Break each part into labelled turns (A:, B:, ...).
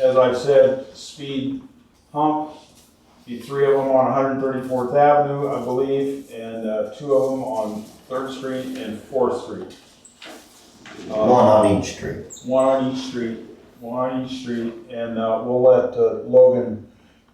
A: As I've said, speed hump, the three of them on 134th Avenue, I believe, and uh, two of them on Third Street and Fourth Street. Uh,
B: One on each street.
A: One on each street, one on each street, and uh, we'll let uh, Logan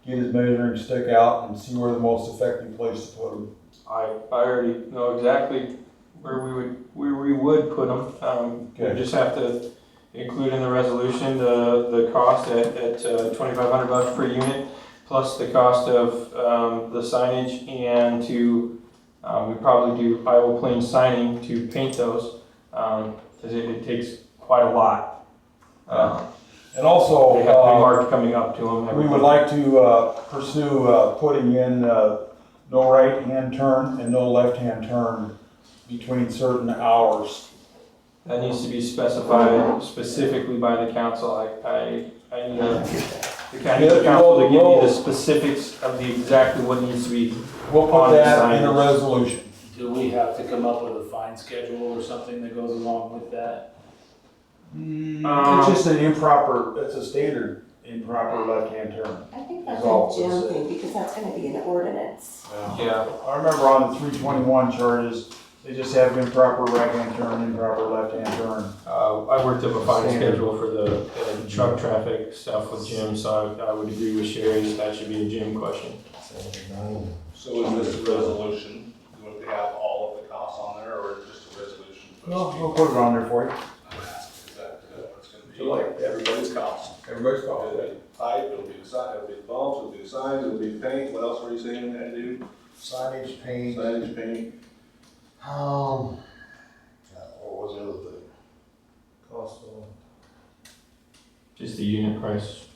A: get his measuring stick out and see where the most effective place to put them.
C: I, I already know exactly where we would, where we would put them. Um, we
A: Okay.
C: just have to include in the resolution the, the cost at, at twenty-five hundred bucks per unit, plus the cost of, um, the signage and to, um, we probably do Iowa Plain signing to paint those, um, cause it, it takes quite a lot. Uh,
A: And also.
C: They have to
A: uh,
C: be marked coming up to them.
A: We would like to uh, pursue uh, putting in uh, no right-hand turn and no left-hand turn between certain hours.
C: That needs to be specified specifically by the council. I, I, I need a, the county
A: Yeah,
C: council to
A: roll,
C: give
A: roll.
C: me the specifics of the exactly what needs to be.
A: We'll
C: On
A: put
C: the
A: that in a
C: signage.
A: resolution.
D: Do we have to come up with a fine schedule or something that goes along with that?
A: Mm, It's just an improper, it's a standard improper left-hand turn.
E: I think that's
A: Resolve
E: a Jim
A: this.
E: thing, because that's gonna be an ordinance.
C: Yeah,
A: I remember on the three twenty-one charges, they just have improper right-hand turn, improper left-hand turn.
C: uh, I worked up a fine
A: Standard.
C: schedule for the uh, truck traffic stuff with Jim, so I, I would agree with Sherry that that should be a Jim question.
F: So is this a resolution? Do we have to have all of the costs on there or just a resolution? for the
A: We'll,
F: speed?
A: we'll put it on there for you.
F: Is that uh, what it's gonna be?
A: So like
F: everybody's cost.
A: Everybody's
F: It'll be pipe, it'll be the sign, it'll be the bulbs, it'll be the signs, it'll be paint. What else were you saying that do?
B: Signage, paint,
F: Signage, paint,
B: um, uh, what was the other thing?
C: Just the unit price,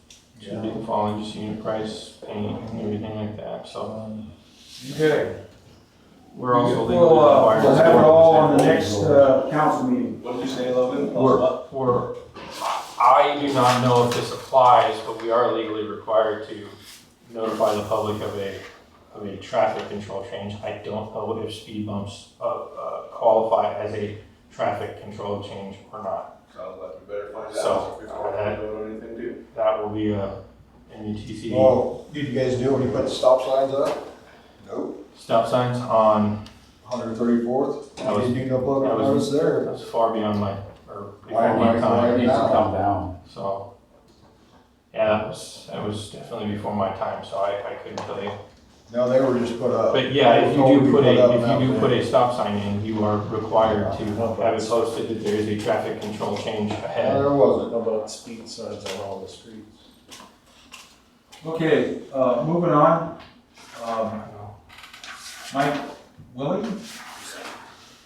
C: should be following just unit price, paint, and everything like that, so.
A: Okay.
C: We're also legally
A: We'll, uh,
C: required. to
A: we'll have it all on the
C: sell
A: next, uh, council meeting.
F: what did you say, Logan?
C: We're, we're, I do not know if this applies, but we are legally required to notify the public of a, of a traffic control change. I don't know if speed bumps, uh, uh, qualify as a traffic control change or not.
F: Sounds like we better find
C: So,
F: out before we
C: uh,
F: do anything too.
C: That will be uh, E a MUTC
B: Well, did you guys do when you put the stop signs up? Nope.
C: stop signs on,
B: Hundred thirty-fourth,
C: That was-
B: you didn't do no public
C: that
B: notice
C: was-
B: there.
C: that's far beyond my, or
B: Why
C: before
B: am I
C: my time,
B: Uh, It needs to come
D: down.
C: so. Yeah, that was, that was definitely before my time, so I, I couldn't tell you.
B: No, they were just put up.
C: But yeah, if you do put a, if you do put
B: it.
C: a stop sign in, you are required to have it posted that there is a traffic control change
B: No,
C: ahead.
B: there wasn't.
D: How about speed signs on all the streets?
A: Okay, uh, moving on. Um, Mike Willie?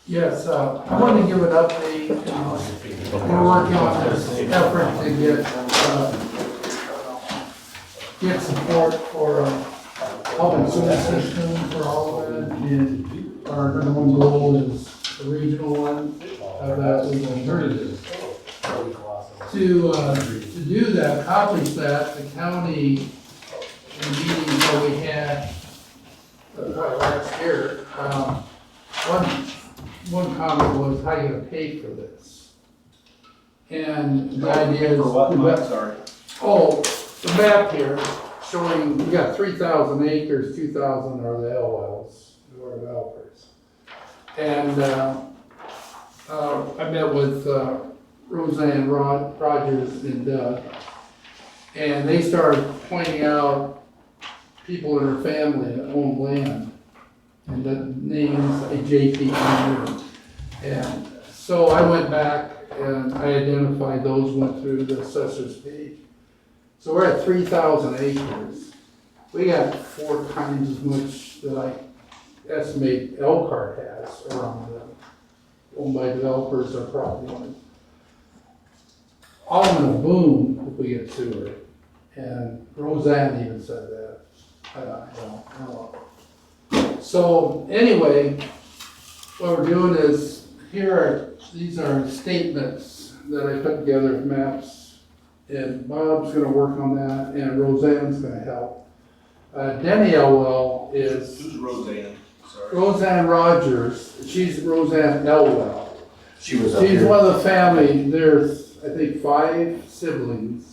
G: Yes, uh, I wanted to give an update. uh, We're working on this effort to get, uh, get support for uh, a public sewer system for all of it. And our number one goal is the regional one, of that is alternatives. To, uh, to do that, accomplish that, the county, in meetings that we had, uh, last year, um, one one comment was, how you gonna pay for this? And the idea is.
A: For what?
G: the
A: I'm
G: map-
A: sorry.
G: Oh, the map here showing, we got three thousand acres, two thousand are the LLs, who are developers. And, uh, uh, I met with, uh, Roseanne Rod, Rogers and Doug. And they started pointing out people in her family that own land and the names, a JP owner. And so I went back and I identified those, went through the assessor's page. So we're at three thousand acres. We got four times as much that I estimate Elkhart has around them, owned by developers or property owners. All in a boom if we get sewer, and Roseanne even said that. I don't, I don't, I don't know. So anyway, what we're doing is, here are, these are statements that I put together, maps and Bob's gonna work on that, and Roseanne's gonna help. Uh, Denny Elwell is
F: Who's Roseanne? Sorry.
G: Roseanne Rogers, she's Roseanne Elwell.
B: She was up
G: She's
B: here.
G: one of the family, there's, I think, five siblings.